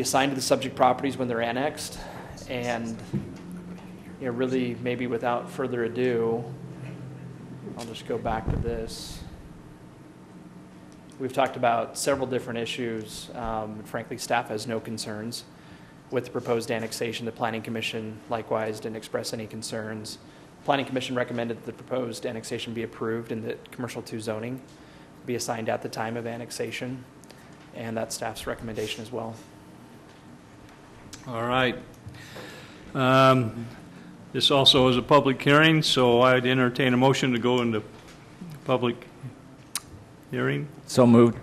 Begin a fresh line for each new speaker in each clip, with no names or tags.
assigned to the subject properties when they're annexed. And, you know, really, maybe without further ado, I'll just go back to this. We've talked about several different issues. Um, Frankly, staff has no concerns with the proposed annexation. The Planning Commission likewise didn't express any concerns. Planning Commission recommended that the proposed annexation be approved and that commercial two zoning be assigned at the time of annexation, and that's staff's recommendation as well.
All right. Um, This also is a public hearing, so I'd entertain a motion to go into public hearing.
So moved.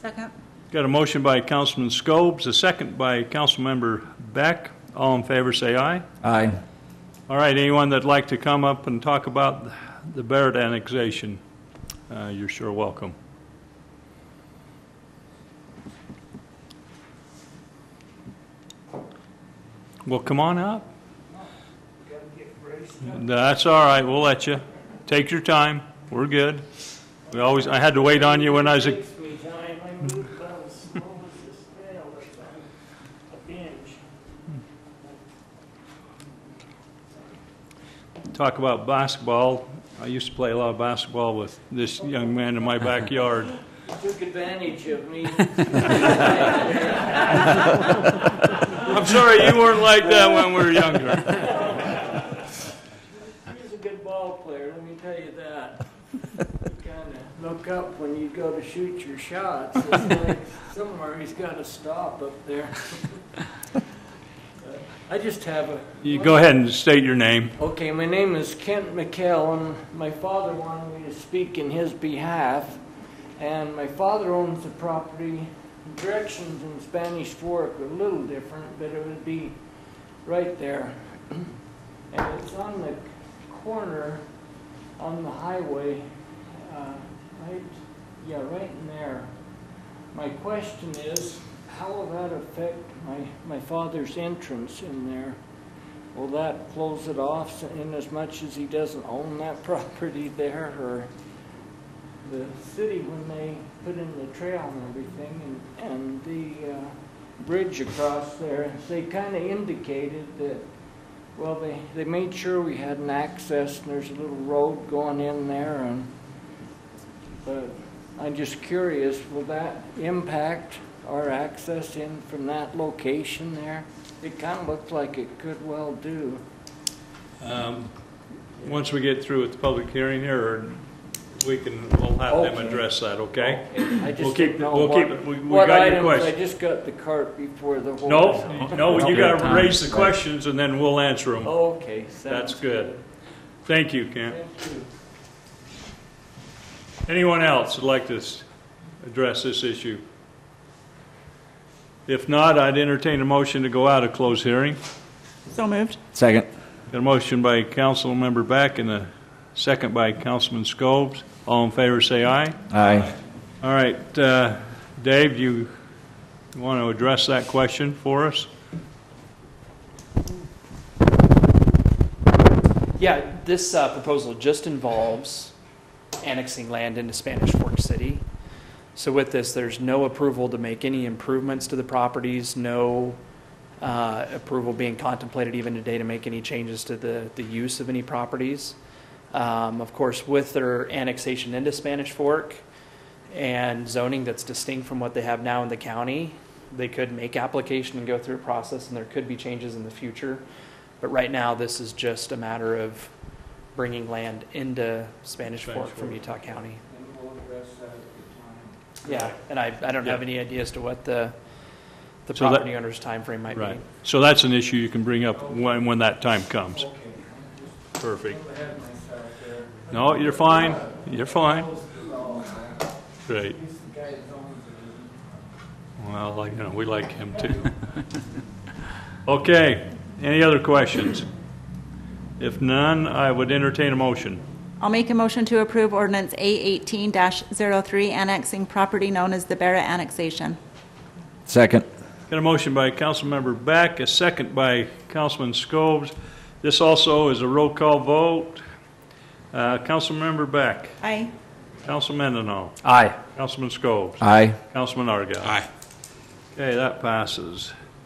Second.
Got a motion by Councilman Scobes, a second by Councilmember Beck. All in favor, say aye.
Aye.
All right, anyone that'd like to come up and talk about the Barrett annexation, uh, you're sure welcome. Well, come on up. That's all right, we'll let you. Take your time, we're good. We always, I had to wait on you when I was a,
Makes me giant, I move about as slow as this snail that's on a binge.
talk about basketball. I used to play a lot of basketball with this young man in my backyard.
Took advantage of me.
I'm sorry you weren't like that when we were younger.
He's a good ball player, let me tell you that. You Kinda look up when you go to shoot your shots. It's like Somewhere he's gotta stop up there. But I just have a
You go ahead and state your name.
Okay, my name is Kent McHale, and my father wanted me to speak in his behalf. And my father owns the property. Directions in Spanish Fork are a little different, but it would be right there. And it's on the corner on the highway, uh, right, yeah, right in there. My question is, how will that affect my, my father's entrance in there? Will that close it off in as much as he doesn't own that property there, or the city, when they put in the trail and everything, and, and the, uh, bridge across there, they kinda indicated that, well, they, they made sure we had an access, and there's a little road going in there, and, but I'm just curious, will that impact our access in from that location there? It kind of looked like it could well do.
Um, Once we get through with the public hearing here, we can, we'll have them
Okay.
address that, okay?
I
We'll
just
keep,
don't know
we'll keep,
what,
we we
what
got your
items, I
question.
just got the cart before the horse.
No, no, you
Okay.
gotta
Time.
raise the questions and then we'll answer
Oh.
them.
Okay, sounds
That's good. Thank you, Kent.
Thank you.
Anyone else would like to s- address this issue? If not, I'd entertain a motion to go out of closed hearing.
So moved.
Second.
Got a motion by Councilmember Beck and a second by Councilman Scobes. All in favor, say aye.
Aye.
All right, uh, Dave, you want to address that question for us?
Yeah, this uh, proposal just involves annexing land into Spanish Fork City. So with this, there's no approval to make any improvements to the properties, no uh, approval being contemplated even today to make any changes to the, the use of any properties. Um, Of course, with their annexation into Spanish Fork and zoning that's distinct from what they have now in the county, they could make application and go through a process, and there could be changes in the future. But right now, this is just a matter of bringing land into Spanish
Spanish
Fork from
Fork.
Utah County.
And we'll address that at the
Yeah, and I, I don't have any idea as to what the, the
So that-
property owner's timeframe might be.
Right. So that's an issue you can bring up when, when that time comes.
time. Okay,
Perfect.
I'm ahead of myself there.
No, you're fine. You're fine.
Close to all that.
Great.
He's the guy that owns it.
Well, like, you know, we like him too. Okay, any other questions? If none, I would entertain a motion.
I'll make a motion to approve ordinance A18-03 annexing property known as the Barra annexation.
Second.
Got a motion by Councilmember Beck, a second by Councilman Scobes. This also is a roll call vote. Uh, Councilmember Beck,
Aye.
Councilman Mendenhall,
Aye.
Councilman Scobes,
Aye.
Councilman Argal. Aye. Okay, that passes.